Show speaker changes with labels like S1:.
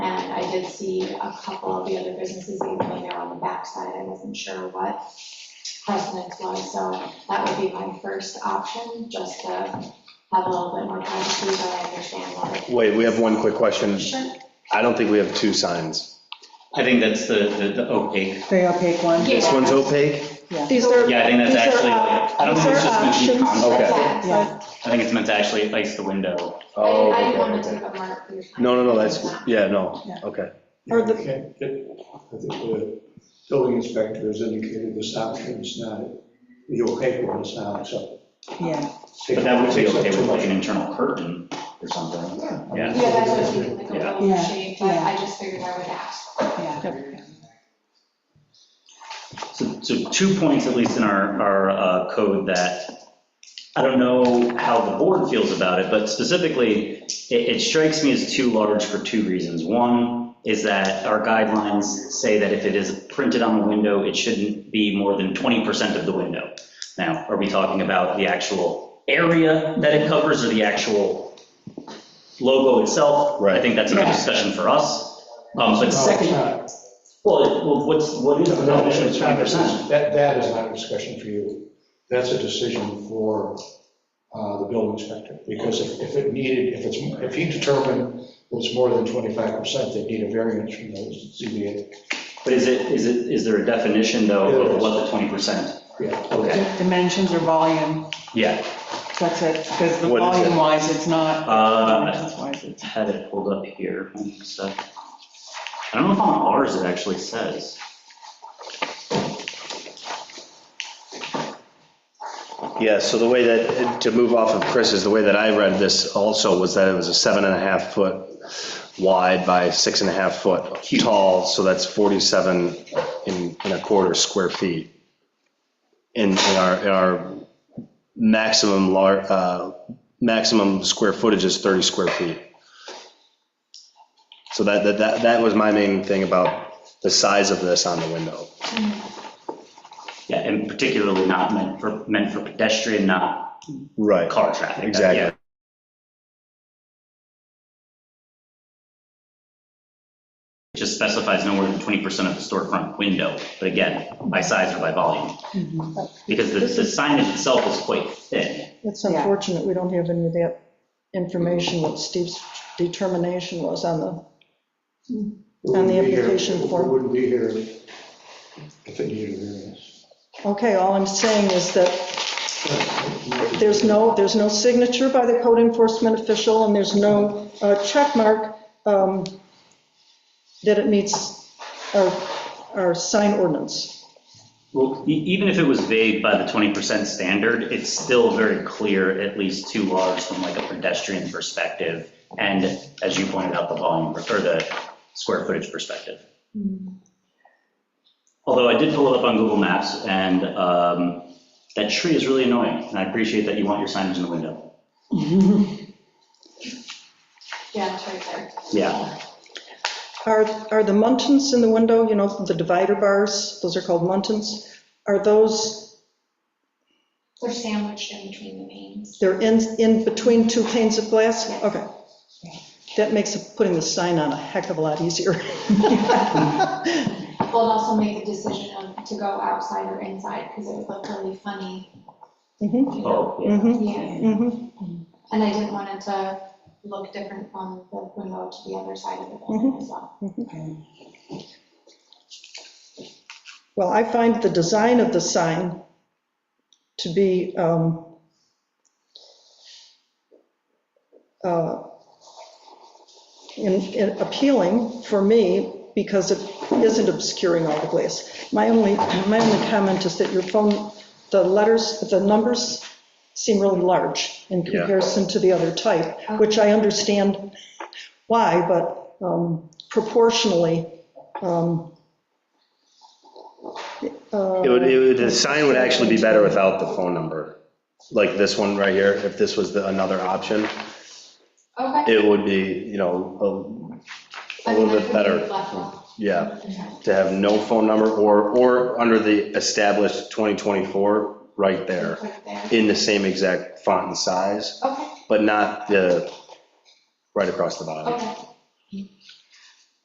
S1: did see a couple of the other businesses, even though they're on the backside, I wasn't sure what precedence was, so that would be my first option, just to have a little bit more time to see so I understand what.
S2: Wait, we have one quick question.
S1: Sure.
S2: I don't think we have two signs.
S3: I think that's the, the the opaque.
S4: Very opaque one.
S1: Yeah.
S2: This one's opaque?
S5: These are,
S3: Yeah, I think that's
S5: These are
S3: actually, like-
S5: op-
S3: I don't think it's
S5: these are
S3: just meant to be
S5: options.
S3: concept.
S2: Okay.
S1: Yeah, so
S4: Yeah.
S3: I think it's meant to actually ice the window.
S1: I
S2: Oh,
S1: I didn't want to
S2: okay.
S1: take up more of your time.
S2: No, no, no, that's, yeah, no,
S4: Yeah.
S2: okay.
S5: Or the-
S6: I think the building inspector has indicated this option is not, the opaque one is not acceptable.
S4: Yeah,
S3: But that would be okay with like an internal curtain or something. Yeah.
S1: Yeah, that's what I was thinking, like a little
S4: Yeah.
S1: shade, but
S4: Yeah.
S1: I just figured I would ask.
S4: yeah.
S3: So, so two points, at least in our, our uh, code, that I don't know how the board feels about it, but specifically, it, it strikes me as too large for two reasons. One is that our guidelines say that if it is printed on the window, it shouldn't be more than 20% of the window. Now, are we talking about the actual area that it covers or the actual logo itself? I
S2: Right.
S3: think that's a good discussion for us. Um, But second, well, it- well, what's, what is the definition of 20%?
S6: That, that is not a discussion for you. That's a decision for uh, the building inspector. Because if if it needed, if it's, if he determined that it's more than 25%, they'd need a variance from the ZBA.
S3: But is it, is it, is there a definition though of what the twenty percent?
S6: Yeah.
S3: Okay,
S4: Dimensions or volume,
S3: yeah,
S4: that's it, because the
S2: What is it?
S4: volume wise, it's not,
S3: uh,
S4: dimensions wise, it's.
S3: I had it pulled up here, so. I don't know if on ours it actually says.
S2: Yeah, so the way that, to move off of Chris's, the way that I read this also was that it was a seven and a half foot wide by six and a half foot tall, so that's 47 in, in a quarter square feet. In, in our, in our maximum lar, uh, maximum square footage is 30 square feet. So that, that- that, that was my main thing about the size of this on the window.
S3: Yeah, and particularly not meant for, meant for pedestrian, not
S2: Right.
S3: car traffic.
S2: Exactly.
S3: Yeah. It Just specifies no more than twenty percent of the storefront window, but again, by size or by volume. Because the the signage itself is quite thin.
S5: it's
S4: Yeah.
S5: unfortunate, we don't have any of that information, what Steve's determination was on the, On the application
S6: It
S5: form.
S6: wouldn't be here if it needed a variance.
S5: okay, all I'm saying is that there's no, there's no signature by the code enforcement official, and there's no uh, check mark um, that it meets our, our sign ordinance.
S3: Well, e- even if it was vague by the 20% standard, it's still very clear, at least too large from like a pedestrian perspective, and as you pointed out, the volume, or the square footage perspective. Although I did pull it up on Google Maps, and um, that tree is really annoying, and I appreciate that you want your signage in the window.
S1: Yeah, it's right there.
S3: Yeah,
S5: Are, are the muntins in the window, you know, the divider bars, those are called muntins, are those
S1: They're sandwiched in between the names.
S5: They're in, in between two panes of glass?
S1: Yeah.
S5: Okay. That makes putting the sign on a heck of a lot easier.
S1: Well, and also make the decision of to go outside or inside, because it would look really funny.
S5: Mhm,
S1: you know?
S3: oh, yeah.
S5: mhm,
S1: Yeah,
S5: mhm,
S1: and I didn't want it to look different from the window to the other side of the building as well.
S5: mhm. Well, I find the design of the sign to be um, uh, in- in- appealing for me because it isn't obscuring all the glass. My only, my only comment is that your phone, the letters, the numbers seem really large in
S2: Yeah.
S5: comparison to the other type, which I understand why, but um, proportionally. um, uh,
S2: It would, it would, the sign would actually be better without the phone number, like this one right here, if this was the, another option,
S1: Okay.
S2: it would be, you know,
S1: I mean,
S2: little bit
S1: I could
S2: better.
S1: leave left one.
S2: a- yeah, to have no phone number or, or under the established 2024, right there,
S1: Right there.
S2: in the same exact font and size,
S1: Okay,
S2: but not the, right across the bottom.
S1: okay,